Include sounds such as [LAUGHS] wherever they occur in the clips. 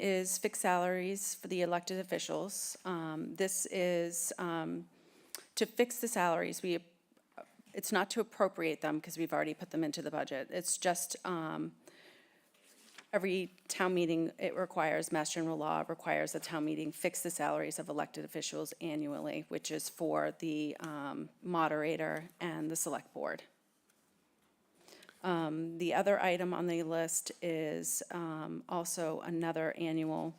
is fixed salaries for the elected officials. Um, This is um, to fix the salaries. We, it's not to appropriate them because we've already put them into the budget. It's just um, every town meeting, it requires, Mass General Law requires a town meeting fix the salaries of elected officials annually, which is for the um, moderator and the select board. Um, The other item on the list is um, also another annual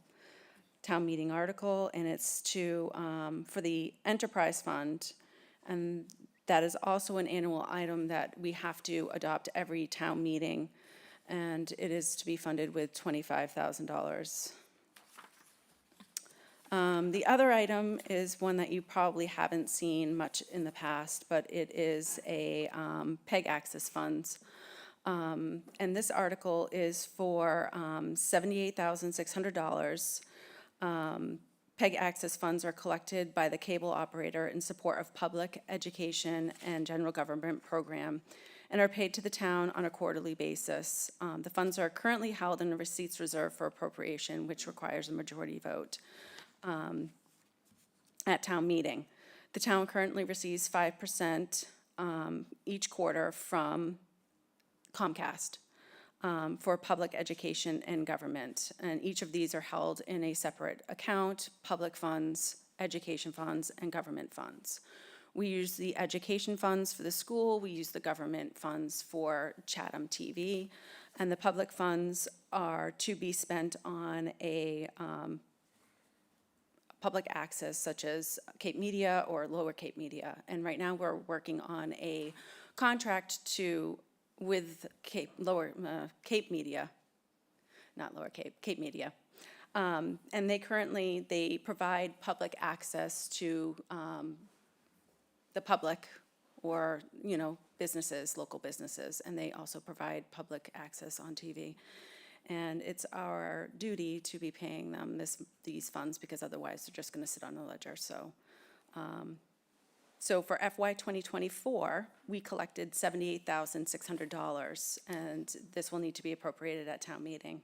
town meeting article, and it's to, um, for the enterprise fund. And that is also an annual item that we have to adopt every town meeting. And it is to be funded with twenty-five thousand dollars. Um, the other item is one that you probably haven't seen much in the past, but it is a, um, PEG access funds. Um, and this article is for, um, seventy-eight thousand six hundred dollars. Um, PEG access funds are collected by the cable operator in support of public education and general government program and are paid to the town on a quarterly basis. Um, the funds are currently held in a receipts reserve for appropriation, which requires a majority vote um, at town meeting. The town currently receives five percent um, each quarter from Comcast um, for public education and government. And each of these are held in a separate account, public funds, education funds, and government funds. We use the education funds for the school, we use the government funds for Chatham TV, and the public funds are to be spent on a public access such as Cape Media or Lower Cape Media. And right now, we're working on a contract to, with Cape, Lower, uh, Cape Media, not Lower Cape, Cape Media. Um, And they currently, they provide public access to um, the public or, you know, businesses, local businesses, and they also provide public access on TV. And it's our duty to be paying them this, these funds because otherwise they're just gonna sit on the ledger, so. um, So for FY twenty twenty-four, we collected seventy-eight thousand six hundred dollars, and this will need to be appropriated at town meeting.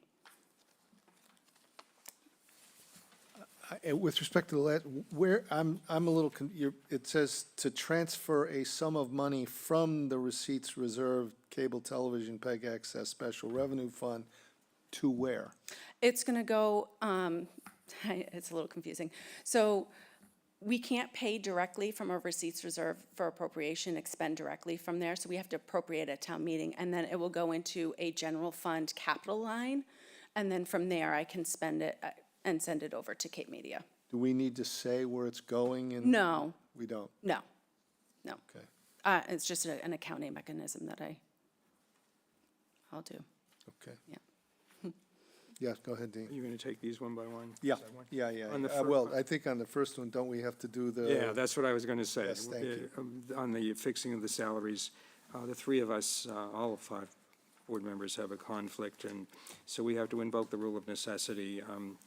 I- Uh, With respect to the last, where, I'm, I'm a little, con- you're, it says to transfer a sum of money from the receipts reserve cable television peg access special revenue fund to where? It's gonna go, um, [LAUGHS] it's a little confusing. So we can't pay directly from our receipts reserve for appropriation, expend directly from there, so we have to appropriate at town meeting, and then it will go into a general fund capital line, and then from there, I can spend it uh, and send it over to Cape Media. Do we need to say where it's going and? No, We don't, no, no. okay. Uh, it's just a- an accounting mechanism that I, I'll do, Okay, yeah. yeah, go ahead, Dean. You're going to take these one by one? Yeah, Is that one? yeah, yeah, On the Uh, fir- well, I think on the first one, don't we have to do the? Yeah, that's what I was going to say. Yes, thank you. Uh, um, On the fixing of the salaries, uh, the three of us, uh, all five board members have a conflict, and so we have to invoke the rule of necessity um,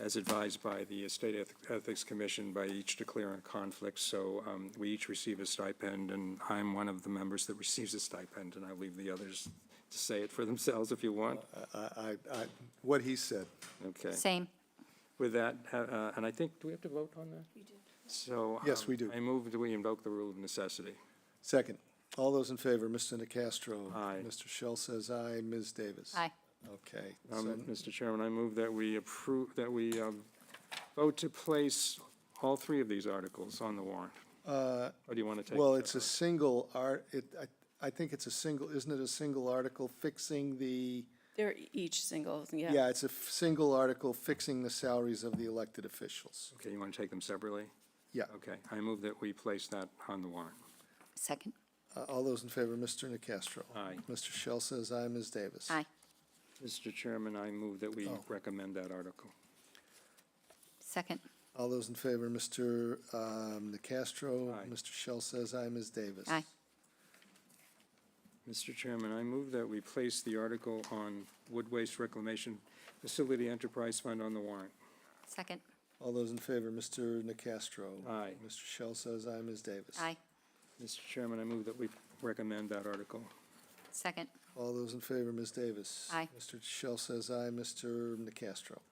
as advised by the State Eth- Ethics Commission by each declaring a conflict. So um, we each receive a stipend, and I'm one of the members that receives a stipend, and I leave the others to say it for themselves if you want. I, I, I, what he said. Okay. Same. With that, uh, uh, and I think, do we have to vote on that? We do. So. Yes, we um, do. I move that we invoke the rule of necessity. Second, all those in favor, Mr. Nacastro. Aye. Mr. Shell says aye, Ms. Davis. Aye. Okay, so Um, Mr. Chairman, I move that we approve, that we um, vote to place all three of these articles on the warrant. Or do you want to take? Uh, Well, it's a single art, it, I, I think it's a single, isn't it a single article fixing the, They're each single, yeah. yeah, it's a f- single article fixing the salaries of the elected officials. Okay, you want to take them separately? Yeah, Okay, I move that we place that on the warrant. Second. Uh, all those in favor, Mr. Nacastro. Aye. Mr. Shell says aye, Ms. Davis. Aye. Mr. Chairman, I move that we Oh. recommend that article. Second. All those in favor, Mr. um, Nacastro. Aye. Mr. Shell says aye, Ms. Davis. Aye. Mr. Chairman, I move that we place the article on Wood Waste Reclamation Facility Enterprise Fund on the warrant. Second. All those in favor, Mr. Nacastro. Aye. Mr. Shell says aye, Ms. Davis. Aye. Mr. Chairman, I move that we recommend that article. Second. All those in favor, Ms. Davis. Aye. Mr. Shell says aye, Mr. Nacastro.